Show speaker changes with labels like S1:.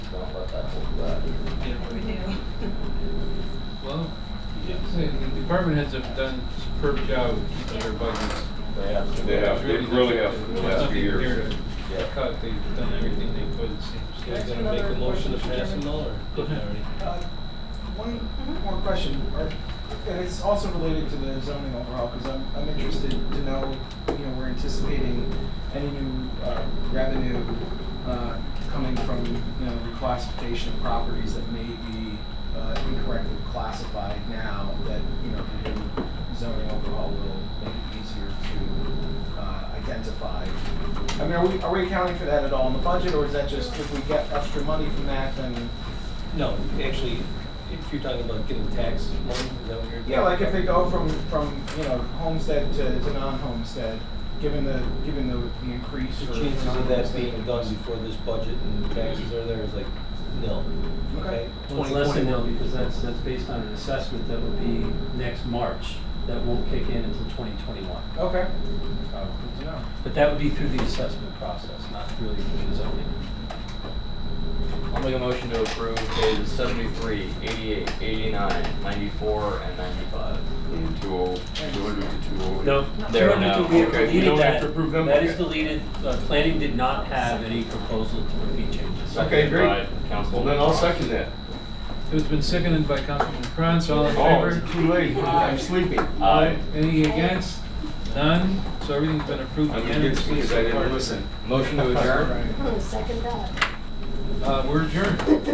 S1: department heads have done superb job of keeping their budgets.
S2: They have.
S3: They have, they really have for the
S1: There's
S3: last few
S1: nothing
S3: years.
S1: here to
S2: Yeah.
S1: Cut, they've done everything they could, it seems.
S4: Guys, gonna make a motion to pass and all, or?
S1: Go ahead, Ernie.
S5: Uh, One more question, Are- and it's also related to the zoning overhaul, because I'm, I'm interested to know, you know, we're anticipating any new uh, revenue uh, coming from, you know, reclassification of properties that may be uh, incorrectly classified now, that, you know, the new zoning overhaul will make it easier to uh, identify. I mean, are we, are we accounting for that at all in the budget, or is that just if we get extra money from that, then
S4: No, actually, if you're talking about getting tax money, is that what you're?
S5: Yeah, like if they go from, from, you know, homestead to, to non-homestead, given the, given the, the increase
S4: The
S5: for.
S4: chances of that
S5: non-homestead.
S4: being done before this budget and taxes are there is like nil, okay?
S6: Well, it's less than now because that's, that's based on an assessment that would be next March that won't kick in until 2021.
S5: Okay. Oh, good to know.
S6: But that would be through the assessment process, not really through the zoning.
S7: I'll make a motion to approve pages 73, 88, 89, 94, and 95.
S3: From 200 to 208.
S6: No,
S7: There,
S6: 200
S7: no.
S6: we have
S3: Okay, you
S6: deleted
S3: don't have
S6: that.
S3: to approve them?
S6: That is
S3: Okay.
S6: deleted. Uh, Planning did not have any proposal to fee changes.
S3: Okay, great.
S7: By Council.
S3: Well, then I'll second that.
S1: It has been seconded by Councilman Kranz, all in
S3: Oh,
S1: favor?
S3: it's too late. I'm sleepy.
S7: Aye.
S1: Any against? None? So everything's been approved
S3: I'm gonna get
S1: unanimously
S3: sleepy because I
S1: so
S3: didn't
S1: far.
S3: listen.
S7: Motion to adjourn.
S5: Right.
S8: I'm gonna second that.
S1: Uh, we're adjourned.